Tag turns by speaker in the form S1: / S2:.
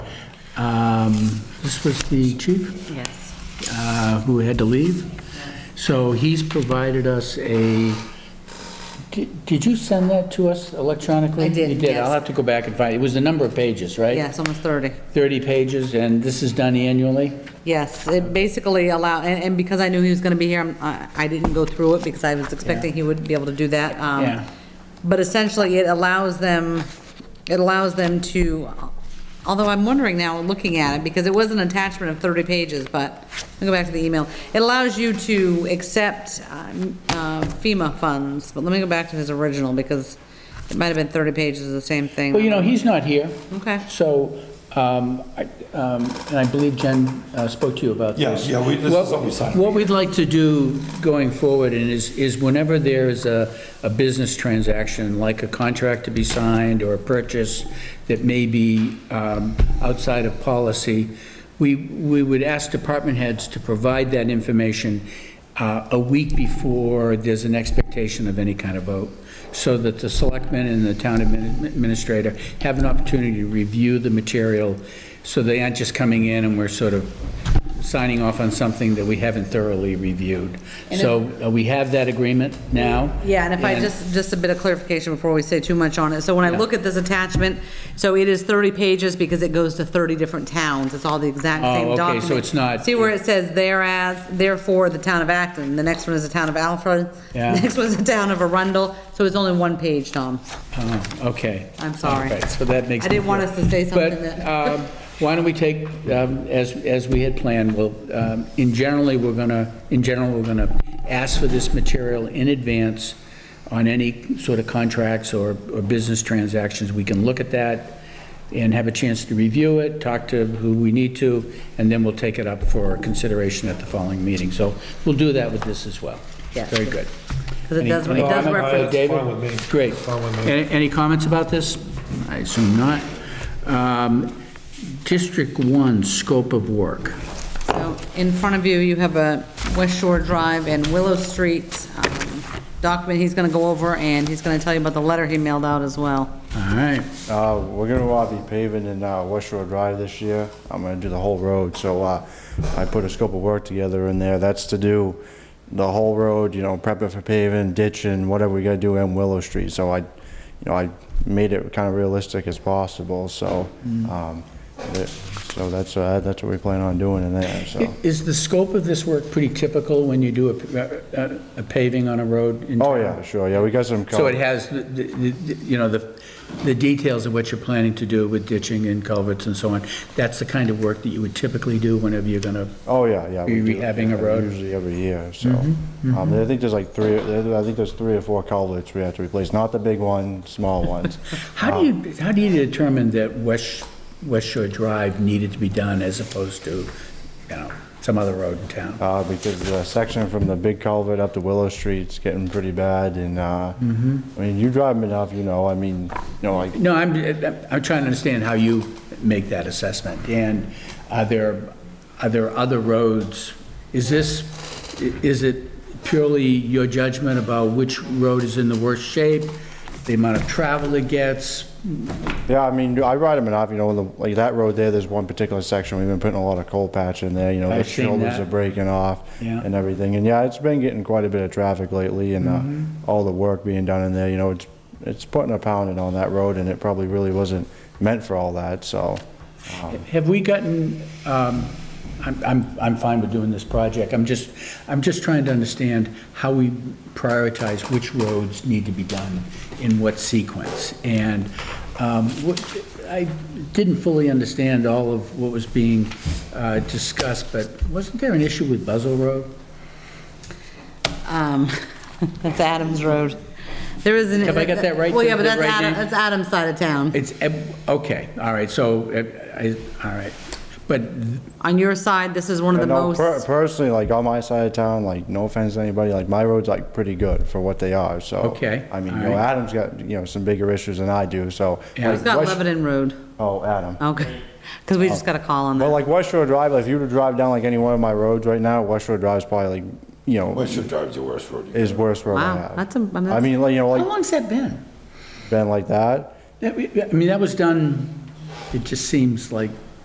S1: Um, This was the chief
S2: Yes.
S1: uh, who had to leave. So he's provided us a, di- did you send that to us electronically?
S2: I did,
S1: You did, I'll
S2: yes.
S1: have to go back and find, it was a number of pages, right?
S2: Yes, almost 30.
S1: 30 pages, and this is done annually?
S2: Yes, it basically allow, and, and because I knew he was gonna be here, I'm- I, I didn't go through it because I was expecting he would be able to do that. um,
S1: Yeah.
S2: But essentially, it allows them, it allows them to, although I'm wondering now, looking at it, because it was an attachment of 30 pages, but, I'll go back to the email. It allows you to accept um, uh, FEMA funds, but let me go back to his original, because it might have been 30 pages of the same thing.
S1: Well, you know, he's not here.
S2: Okay.
S1: So, um, I- um, and I believe Jen uh, spoke to you about
S3: Yeah,
S1: this.
S3: yeah, we- this is
S1: What-
S3: what we signed.
S1: What we'd like to do going forward and is, is whenever there is a, a business transaction, like a contract to be signed or a purchase that may be um, outside of policy, we, we would ask department heads to provide that information uh, a week before there's an expectation of any kind of vote, so that the selectmen and the town admin- administrator have an opportunity to review the material, so they aren't just coming in and we're sort of signing off on something that we haven't thoroughly reviewed. So uh, we have that agreement now.
S2: Yeah, and if I just, just a bit of clarification before we say too much on it. So when I look at this attachment, so it is 30 pages because it goes to 30 different towns. It's all the exact
S1: Oh,
S2: same
S1: okay, so
S2: document.
S1: it's not-
S2: See where it says thereas, therefore, the town of Acton. The next one is the town of Alfred.
S1: Yeah.
S2: Next one's the town of Arundel. So it's only one page, Tom.
S1: Oh, Okay.
S2: I'm sorry.
S1: All right, so that makes.
S2: I didn't
S1: me
S2: want
S1: feel-
S2: us to say something
S1: But
S2: that-
S1: um, why don't we take, um, as, as we had planned, well, um, in generally, we're gonna, in general, we're gonna ask for this material in advance on any sort of contracts or, or business transactions. We can look at that and have a chance to review it, talk to who we need to, and then we'll take it up for consideration at the following meeting. So we'll do that with this as well.
S2: Yes.
S1: Very good.
S2: Because it does, it
S1: Any- any
S2: does
S1: comment?
S2: reference.
S1: Uh, David?
S3: Fine with me.
S1: Great.
S3: Fine with me.
S1: Any any comments about this? I assume not. Um, District 1, scope of work.
S2: So in front of you, you have a West Shore Drive and Willow Street um, document he's going to go over, and he's going to tell you about the letter he mailed out as well.
S1: All right,
S4: Uh, We're gonna uh, be paving in uh, West Shore Drive this year. I'm gonna do the whole road, so uh, I put a scope of work together in there. That's to do the whole road, you know, prep it for paving, ditching, whatever we gotta do in Willow Street. So I, you know, I made it kind of realistic as possible, so, um, that- so that's, uh, that's what we plan on doing in there, so.
S1: is the scope of this work pretty typical when you do a- a a paving on a road? in
S4: Oh,
S1: town?
S4: yeah, sure, yeah, we got some.
S1: So it has, the- the- the- you know, the the details of what you're planning to do with ditching and culverts and so on. That's the kind of work that you would typically do whenever you're going to,
S4: Oh, yeah, yeah. we
S1: You're
S4: do.
S1: rehabbing a road? Mm-hmm,
S4: Usually every year, so. Um, I think there's like three, I think there's three or four culverts we have to replace, not the big one, small ones.
S1: how do you, how do you determine that West West Shore Drive needed to be done as opposed to, you know, some other road in town?
S4: Uh, because the section from the big culvert up to Willow Street's getting pretty bad and, uh, I
S1: Mm-hmm.
S4: mean, you drive enough, you know, I mean, you know, like,
S1: No, I'm, I'm trying to understand how you make that assessment, and are there, are there other roads? Is this, is it purely your judgment about which road is in the worst shape, the amount of travel it gets?
S4: yeah, I mean, I ride them enough, you know, on the- like that road there, there's one particular section, we've been putting a lot of coal patch in there, you know, the
S1: I've seen
S4: shoulders
S1: that.
S4: are breaking off
S1: Yeah.
S4: and everything. And yeah, it's been getting quite a bit of traffic lately and
S1: Mm-hmm.
S4: uh, all the work being done in there, you know, it's, it's putting a pounding on that road and it probably really wasn't meant for all that, so.
S1: Have we gotten, um, I'm, I'm, I'm fine with doing this project, I'm just, I'm just trying to understand how we prioritize which roads need to be done in what sequence. And um, what- I didn't fully understand all of what was being uh, discussed, but wasn't there an issue with Buzzell Road?
S2: Um, That's Adams Road. There is an.
S1: Have I got that right?
S2: Well, yeah, but
S1: The- the
S2: that's
S1: right
S2: Adam,
S1: name?
S2: that's Adam's side of town.
S1: It's, eh, okay, all right, so, eh, I, all right, but,
S2: On your side, this is one of the
S4: I know, per-
S2: most,
S4: Personally, like on my side of town, like no offense to anybody, like my road's like pretty good for what they are, so.
S1: Okay,
S4: I mean, you know,
S1: alright.
S4: Adam's got, you know, some bigger issues than I do, so.
S1: Yeah.
S4: like,
S2: it's got
S4: West-
S2: Lebanon Road.
S4: Oh, Adam.
S2: Okay, because we just got a call on
S4: But
S2: that.
S4: like West Shore Drive, like if you were to drive down like any one of my roads right now, West Shore Drive's probably like, you know,
S3: West Shore Drive's the worst road. you
S4: is worst road I
S2: Wow,
S4: have.
S2: that's Oh. a- I mean,
S4: I mean, like, you know,
S1: how
S4: like,
S1: long's that been?
S4: been like that.
S1: That- I mean, that was done, it just seems like